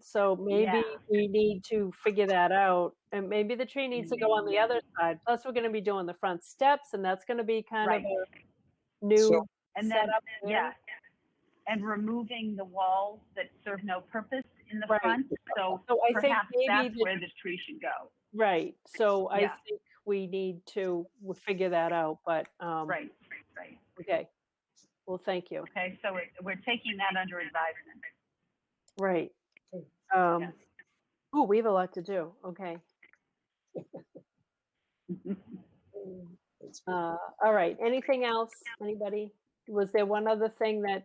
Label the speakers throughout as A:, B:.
A: So
B: Yeah.
A: maybe we need to figure that out, and maybe the tree needs to go on the other
B: Mm-hmm.
A: side. Plus, we're gonna be doing the front steps, and that's gonna be kind of
B: Right.
A: a
C: So,
A: new
B: And then,
A: setup
B: yeah,
A: there.
B: and removing the walls that serve no purpose in the
A: Right.
B: front. So
A: So I think
B: perhaps
A: maybe,
B: that's
A: the-
B: where the tree should go.
A: right, so I
B: Yeah.
A: think we need to w- figure that out, but, um,
B: Right, right.
A: okay. Well, thank you.
B: Okay, so we're, we're taking that under advisement.
A: Right.
C: Okay.
B: Yeah.
A: Um, oh, we have a lot to do. Okay.
C: that's good.
A: Uh, all right. Anything else? Anybody? Was there one other thing that?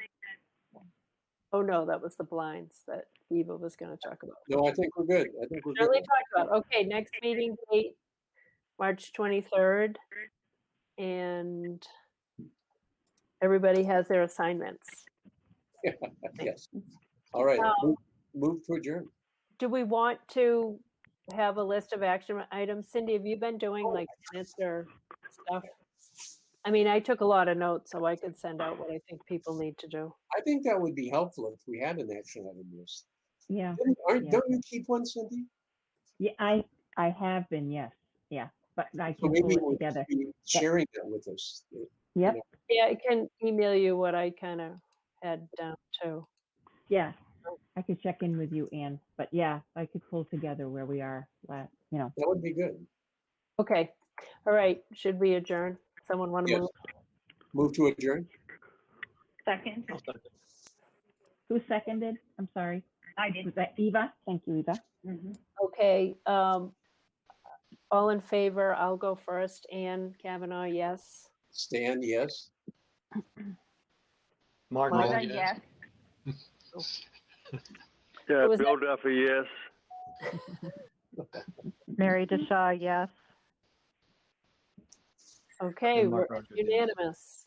A: Oh no, that was the blinds that Eva was going to talk about.
C: No, I think we're good. I think we're
A: Shirley
C: good.
A: talked about. Okay, next meeting date, March twenty third, and everybody has their assignments.
C: Yes. All right,
A: Um,
C: move- move to adjourn.
A: Do we want to have a list of action items? Cindy, have you been doing like minutes or stuff? I mean, I took a lot of notes, so I could send out what I think people need to do.
C: I think that would be helpful if we had an action item list.
D: Yeah,
C: Didn't- aren't-
D: Yeah.
C: Don't you keep one, Cindy?
D: yeah, I, I have been, yes, yeah, but I
C: So
D: can
C: maybe
D: pull
C: you
D: it
C: would
D: together.
C: be sharing that with us.
D: Yep,
A: Yeah, I can email you what I kind of had down too.
D: yeah,
C: Oh.
D: I could check in with you, Ann, but yeah, I could pull together where we are, la- you know,
C: That would be good.
A: Okay, all right, should we adjourn? Someone want to
C: Yes.
A: move?
C: Move to adjourn?
B: Second,
A: Oh.
D: who seconded? I'm sorry,
B: I did.
D: was that Eva? Thank you, Eva.
B: Mhm.
A: Okay, um, all in favor, I'll go first. Anne Kavanaugh, yes.
C: Stan, yes?
E: Mark,
A: Mark,
B: Martha,
E: Rowland, yes.
B: yes.
F: Yeah,
A: was
F: Bill Duffy, yes.
G: Mary DeShaw, yes.
A: Okay,
E: And
A: we're
E: Mark Rogers, yes.
A: unanimous.